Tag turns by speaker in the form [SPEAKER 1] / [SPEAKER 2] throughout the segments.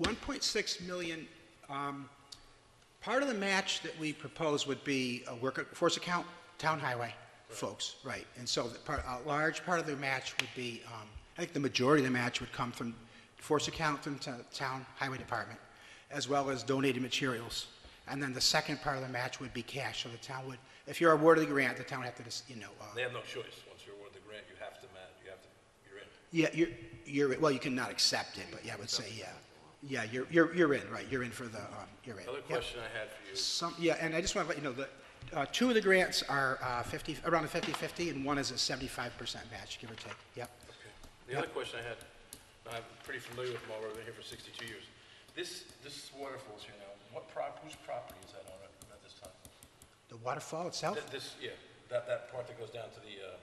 [SPEAKER 1] 1.6 million, um, part of the match that we propose would be a workforce account, town highway folks, right? And so the part- a large part of the match would be, um, I think the majority of the match would come from force account from to- town highway department, as well as donated materials. And then the second part of the match would be cash, so the town would, if you're awarded the grant, the town would have to, just, you know, uh,
[SPEAKER 2] They have no choice. Once you're awarded the grant, you have to, ma- you have to, you're in.
[SPEAKER 1] Yeah, you're, you're, well, you cannot accept it, but yeah, I would say, yeah. Yeah, you're, you're, you're in, right, you're in for the, um, you're in.
[SPEAKER 2] Another
[SPEAKER 1] Yep.
[SPEAKER 2] question I had for you,
[SPEAKER 1] Some, yeah, and I just want to let you know that, uh, two of the grants are, uh, fifty, around a fifty-fifty, and one is a seventy-five percent match, give or take, yep.
[SPEAKER 2] okay. The other question I had, I'm pretty familiar with Marlboro, I've been here for 62 years. This, this waterfall's here now, what prop, whose property is that on it at this time?
[SPEAKER 1] The waterfall itself,
[SPEAKER 2] Th- This, yeah, that, that part that goes down to the, uh,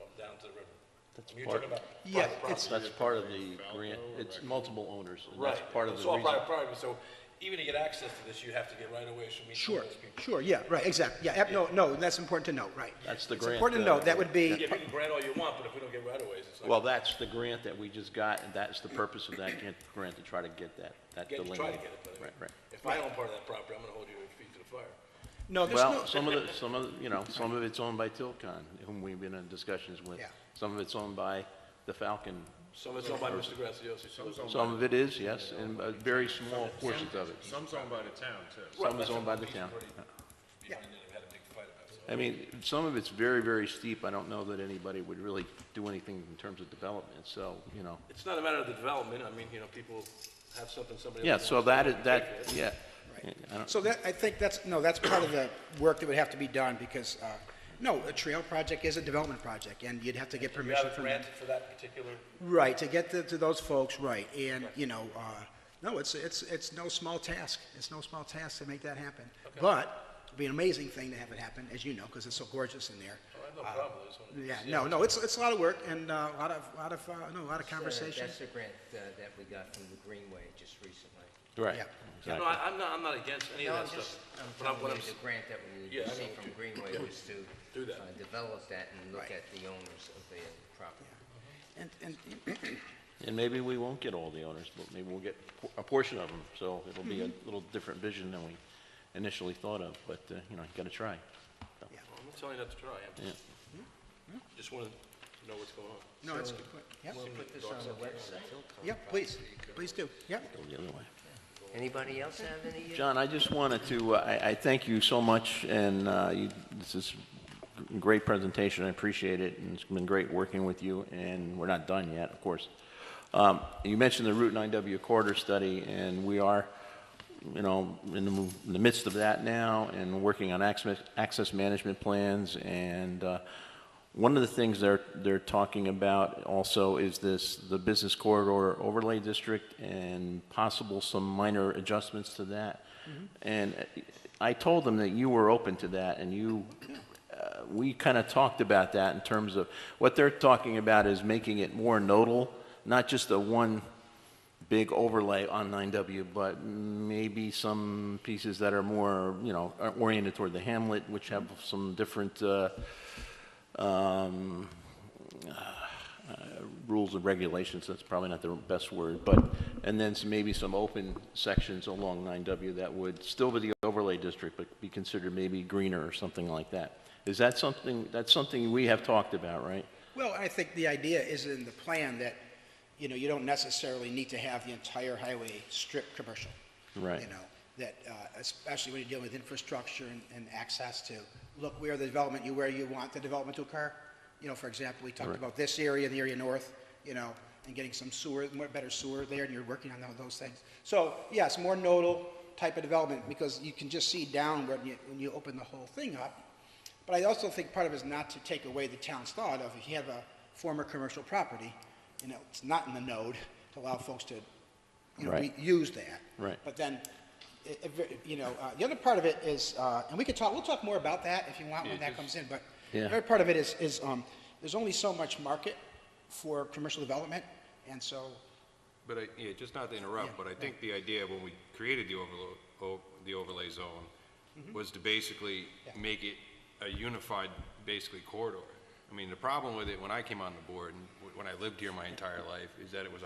[SPEAKER 2] well, down to the river.
[SPEAKER 3] That's
[SPEAKER 2] You're
[SPEAKER 3] part-
[SPEAKER 2] talking about
[SPEAKER 1] Yeah,
[SPEAKER 2] private property.
[SPEAKER 1] it's-
[SPEAKER 3] That's part of the grant, it's multiple owners, and that's
[SPEAKER 2] Right.
[SPEAKER 3] part of
[SPEAKER 2] It's
[SPEAKER 3] the
[SPEAKER 2] all
[SPEAKER 3] reason.
[SPEAKER 2] private property, so even to get access to this, you have to get right away from each
[SPEAKER 1] sure,
[SPEAKER 2] of those people.
[SPEAKER 1] sure, yeah, right, exactly, yeah, ep- no, no, that's important to note, right.
[SPEAKER 3] That's the
[SPEAKER 1] It's
[SPEAKER 3] grant,
[SPEAKER 1] important to
[SPEAKER 3] uh,
[SPEAKER 1] note, that would be,
[SPEAKER 2] Yeah, you can grant all you want, but if we don't get right aways, it's not.
[SPEAKER 3] Well, that's the grant that we just got, and that's the purpose of that grant- grant, to try to get that, that
[SPEAKER 2] Get,
[SPEAKER 3] delineated.
[SPEAKER 2] try to get it, but I mean,
[SPEAKER 3] Right, right.
[SPEAKER 2] if I own part of that property, I'm gonna hold you feet to the fire.
[SPEAKER 1] no, there's no,
[SPEAKER 3] Well, some of the, some of, the- you know, some of it's owned by Tilcon, whom we've been in discussions with.
[SPEAKER 1] Yeah.
[SPEAKER 3] Some of it's owned by the Falcon.
[SPEAKER 2] Some of it's owned by Mr. Graziosi, some of it's
[SPEAKER 3] Some of it is, yes, and uh, very small portions of it.
[SPEAKER 4] Some's owned by the town, too.
[SPEAKER 3] Some is owned by the town.
[SPEAKER 1] Yeah.
[SPEAKER 2] And then we had a big fight about it.
[SPEAKER 3] I mean, some of it's very, very steep. I don't know that anybody would really do anything in terms of development, so, you know.
[SPEAKER 2] It's not a matter of the development, I mean, you know, people have something, somebody.
[SPEAKER 3] Yeah,
[SPEAKER 2] else
[SPEAKER 3] so
[SPEAKER 2] wants,
[SPEAKER 3] that
[SPEAKER 2] they
[SPEAKER 3] is,
[SPEAKER 2] don't
[SPEAKER 3] that,
[SPEAKER 2] pay for it.
[SPEAKER 3] yeah.
[SPEAKER 1] Right.
[SPEAKER 3] I don't-
[SPEAKER 1] So that, I think that's, no, that's part of the work that would have to be done, because, uh, no, a trail project is a development project, and you'd have to get
[SPEAKER 2] You
[SPEAKER 1] permission
[SPEAKER 2] haven't
[SPEAKER 1] from them.
[SPEAKER 2] granted for that particular,
[SPEAKER 1] Right, to get to, to those folks, right, and, you know, uh, no, it's, it's, it's no small task, it's no small task to make that happen. But, it'd be an amazing thing to have it happen, as you know, because it's so gorgeous in there.
[SPEAKER 2] I have no problem, I just wanted to
[SPEAKER 1] Yeah,
[SPEAKER 2] see
[SPEAKER 1] no, no, it's, it's a lot of work, and uh, a lot of, lot of, uh, no, a lot of
[SPEAKER 5] Uh,
[SPEAKER 1] conversation.
[SPEAKER 5] That's the grant uh, that we got from the Greenway just recently.
[SPEAKER 3] Right.
[SPEAKER 1] Yeah.
[SPEAKER 2] No,
[SPEAKER 3] exactly.
[SPEAKER 2] I, I'm not, I'm not against any of
[SPEAKER 5] No,
[SPEAKER 2] that
[SPEAKER 5] I'm just,
[SPEAKER 2] stuff,
[SPEAKER 5] I'm
[SPEAKER 2] but I'm, what
[SPEAKER 5] telling
[SPEAKER 2] I'm,
[SPEAKER 5] you,
[SPEAKER 2] s-
[SPEAKER 5] the grant that we
[SPEAKER 2] Yeah, I
[SPEAKER 5] received
[SPEAKER 2] know.
[SPEAKER 5] from Greenway was to
[SPEAKER 2] Do that.
[SPEAKER 5] uh, develop that and look
[SPEAKER 1] Right.
[SPEAKER 5] at the owners of the property. Mm-hmm.
[SPEAKER 1] And, and,
[SPEAKER 3] And maybe we won't get all the owners, but maybe we'll get por- a portion of them, so it'll be a little different vision than we initially thought of, but, uh, you know, you gotta try.
[SPEAKER 2] I'm not telling you not to try, I'm just, just wanted to know what's going on.
[SPEAKER 1] no, it's a good point, yeah,
[SPEAKER 5] We'll put this on the website.
[SPEAKER 1] yeah, please, please do, yeah.
[SPEAKER 3] Go the other way.
[SPEAKER 5] Anybody else have any? uh,
[SPEAKER 3] John, I just wanted to, uh, I, I thank you so much, and uh, you, this is a great presentation, I appreciate it, and it's been great working with you, and we're not done yet, of course. Um, You mentioned the Route 9W corridor study, and we are, you know, in the mo- in the midst of that now, and working on access, access management plans, and uh, one of the things they're, they're talking about also is this, the business corridor overlay district and possible some minor adjustments to that. And uh, I told them that you were open to that and you, uh, we kind of talked about that in terms of, what they're talking about is making it more nodal, not just a one big overlay on 9W, but maybe some pieces that are more, you know, are oriented toward the hamlet, which have some different, uh, um, uh, rules and regulations, that's probably not the best word, but, and then some- maybe some open sections along 9W that would still be the overlay district, but be considered maybe greener or something like that. Is that something, that's something we have talked about, right?
[SPEAKER 1] Well, I think the idea is in the plan that, you know, you don't necessarily need to have the entire highway strip commercial.
[SPEAKER 3] Right.
[SPEAKER 1] You know, that, uh, especially when you're dealing with infrastructure and, and access to, look where the development, you, where you want the development to occur. You know, for example, we talked about this area, the area north, you know, and getting some sewer, more better sewer there, and you're working on tho- those things. So, yes, more nodal type of development, because you can just see down when you, when you open the whole thing up, but I also think part of it is not to take away the town's thought of if you have a former commercial property, you know, it's not in the node to allow folks to, you know,
[SPEAKER 3] Right.
[SPEAKER 1] re- use that.
[SPEAKER 3] Right.
[SPEAKER 1] But then, i- if it- you know, uh, the other part of it is, uh, and we could talk, we'll talk more about that if you want when that comes in, but the
[SPEAKER 3] Yeah.
[SPEAKER 1] other part of it is, is um, there's only so much market for commercial development, and so,
[SPEAKER 4] But I, yeah, just not to
[SPEAKER 1] Yeah,
[SPEAKER 4] interrupt, but I think the idea when we created the overlo, o- the overlay zone was to basically
[SPEAKER 1] Mm-hmm. Yeah.
[SPEAKER 4] make it a unified, basically corridor. I mean, the problem with it, when I came on the board, and wh- when I lived here my entire life, is that it was a